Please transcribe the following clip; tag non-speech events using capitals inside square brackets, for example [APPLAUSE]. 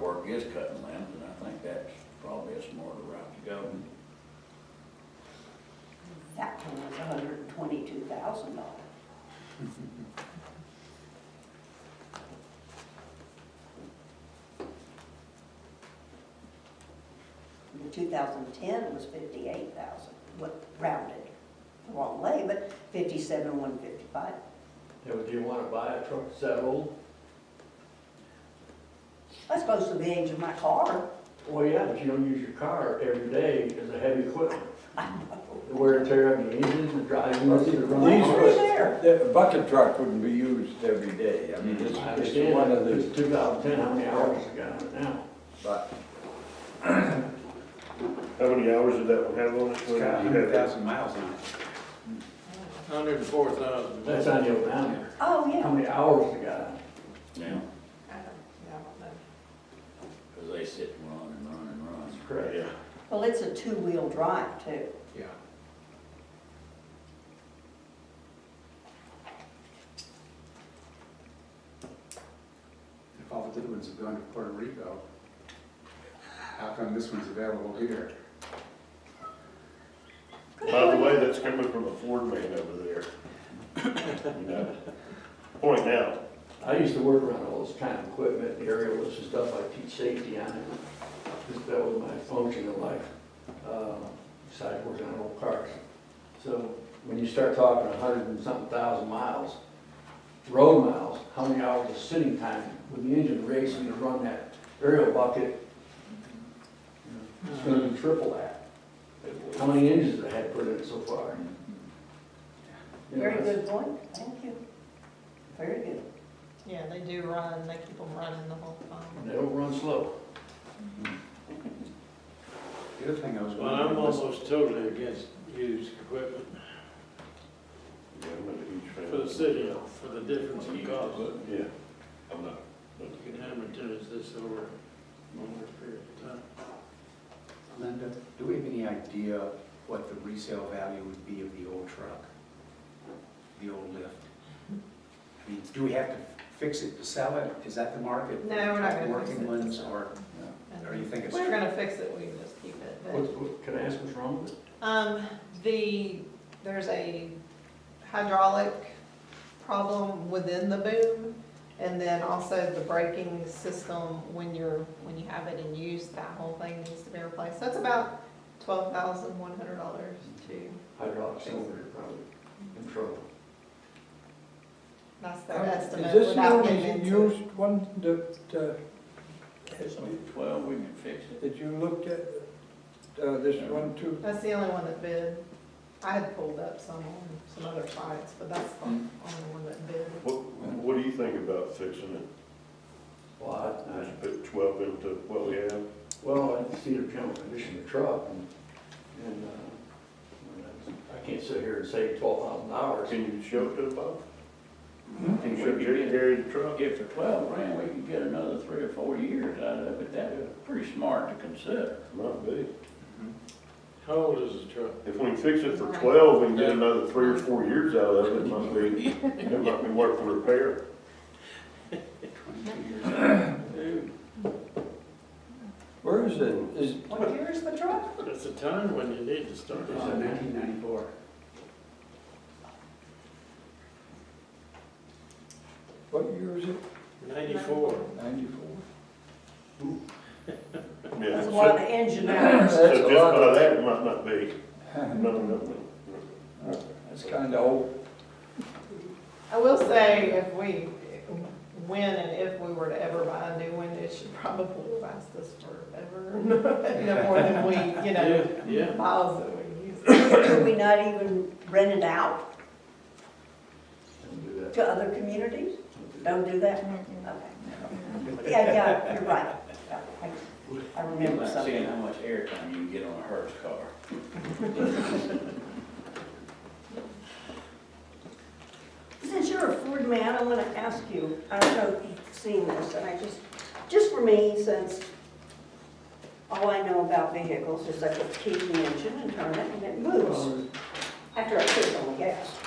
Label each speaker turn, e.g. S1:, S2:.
S1: Park is cutting limbs, and I think that's probably a smarter route to go.
S2: That one was hundred and twenty-two thousand dollars. The two thousand ten was fifty-eight thousand, what rounded, the wrong way, but fifty-seven, one fifty-five.
S3: Yeah, would you wanna buy a truck that's that old?
S2: That's close to the age of my car.
S3: Well, yeah, but you don't use your car every day as a heavy equipment.
S2: I know.
S3: The wear and tear on the engine, the driving, the running.
S1: These were-
S2: Over there.
S1: The bucket truck wouldn't be used every day, I mean, it's,
S3: I
S1: it's one of
S3: understand,
S1: the,
S3: it's two thousand ten, how many hours you got on it now?
S1: but
S4: How many hours did that one have on it?
S5: It's got a
S4: When did you
S5: hundred
S4: have it?
S5: thousand miles on it. Hundred and four thousand.
S3: That's on your boundary.
S2: Oh,
S3: How
S2: yeah.
S3: many hours you got on it?
S1: now,
S6: I don't, I don't know.
S1: because they sit and run and run and run.
S2: [LAUGHS]
S3: Correct.
S4: Yeah.
S2: Well, it's a two-wheel drive too.
S5: Yeah. If all the good ones have gone to Puerto Rico, how come this one's available here?
S4: By the way, that's coming from a Ford man over there. You know, Point out,
S3: I used to work around all this kind of equipment, the aerial lifts and stuff, I teach safety on it. Just That was my function in life, uh, besides working on old cars. So when you start talking a hundred and something thousand miles, road miles, how many hours of sitting time with the engine racing to run that aerial bucket? you know, It's gonna be triple that. How many engines I had put in so far? You know,
S2: Very
S3: that's-
S2: good point, thank you. Very good.
S6: Yeah, they do run, they keep them running the whole time.
S3: They don't run slow.
S5: The other thing I was
S7: Well, I'm
S5: wondering was,
S7: almost totally against used equipment
S4: yeah, I'm not a huge fan.
S7: for the city, for the difference in cost.
S4: Yeah, I'm not.
S7: You can amortize this over a longer period of time.
S5: Linda, do we have any idea what the resale value would be of the old truck? The old lift? I mean, do we have to fix it to sell it? Is that the market?
S6: No, we're not gonna fix
S5: Working
S6: it.
S5: ones, or or you think
S6: If
S5: it's?
S6: we were gonna fix it, we can just keep it, but,
S3: What's- what- Can I ask what's wrong with it?
S6: um, the, there's a hydraulic problem within the boom, and then also the braking system, when you're, when you have it in use, that whole thing needs to be replaced. That's about twelve thousand one hundred dollars to,
S3: hydraulic cylinder probably in trouble.
S6: that's the
S8: Is
S6: estimate
S8: this the
S6: without
S8: only
S6: getting into.
S8: used one that, uh,
S1: It's only twelve, we can fix it.
S8: that you looked at, uh, this one too?
S6: That's the only one that bid. I had pulled up some on some other sites, but that's the only one that bid.
S4: What, what do you think about fixing it?
S3: Well, I, I,
S4: Just put twelve into what we have?
S3: well, I see the general condition of the truck and, and, uh, I can't sit here and say twelve thousand dollars.
S4: Can you show it to the Bob?
S1: We
S4: Can you show
S1: could
S4: Jerry,
S1: get-
S4: Jerry the truck?
S1: If for twelve grand, we could get another three or four years out of it, that's pretty smart to consider.
S4: Might be.
S7: How old is the truck?
S4: If we can fix it for twelve, we can get another three or four years out of it, it might be, it might be worth the repair.
S8: Where is it? Is,
S2: What year is the truck?
S7: That's the time when you need to start.
S5: It's a nineteen ninety-four.
S8: what year is it?
S7: Ninety-four.
S8: Ninety-four. [LAUGHS]
S4: Yeah,
S2: That's
S4: so-
S2: why the
S3: [CLEARS THROAT]
S2: engine hours.
S4: So
S8: That's a
S4: just
S8: lot
S4: by
S8: of-
S4: that, it might not be, no, no, no.
S8: That's kinda old.
S6: I will say, if we, when and if we were to ever buy a new one, it should probably last us forever. [LAUGHS] No more than we, you know,
S7: Yeah, yeah.
S6: miles that we use.
S2: Could we not even rent it out
S3: Don't do that.
S2: to other communities?
S3: Don't do that.
S2: Don't do that? Okay. Yeah, yeah, you're right. Yeah, I- I
S1: You're
S2: remember
S1: not seeing
S2: something.
S1: how much airtime you can get on a Hertz car.
S2: Since you're a Ford man, I want to ask you, I don't know if you've seen this, and I just, just for me, since all I know about vehicles is I could keep the engine and turn it and it moves after I put it on the gas.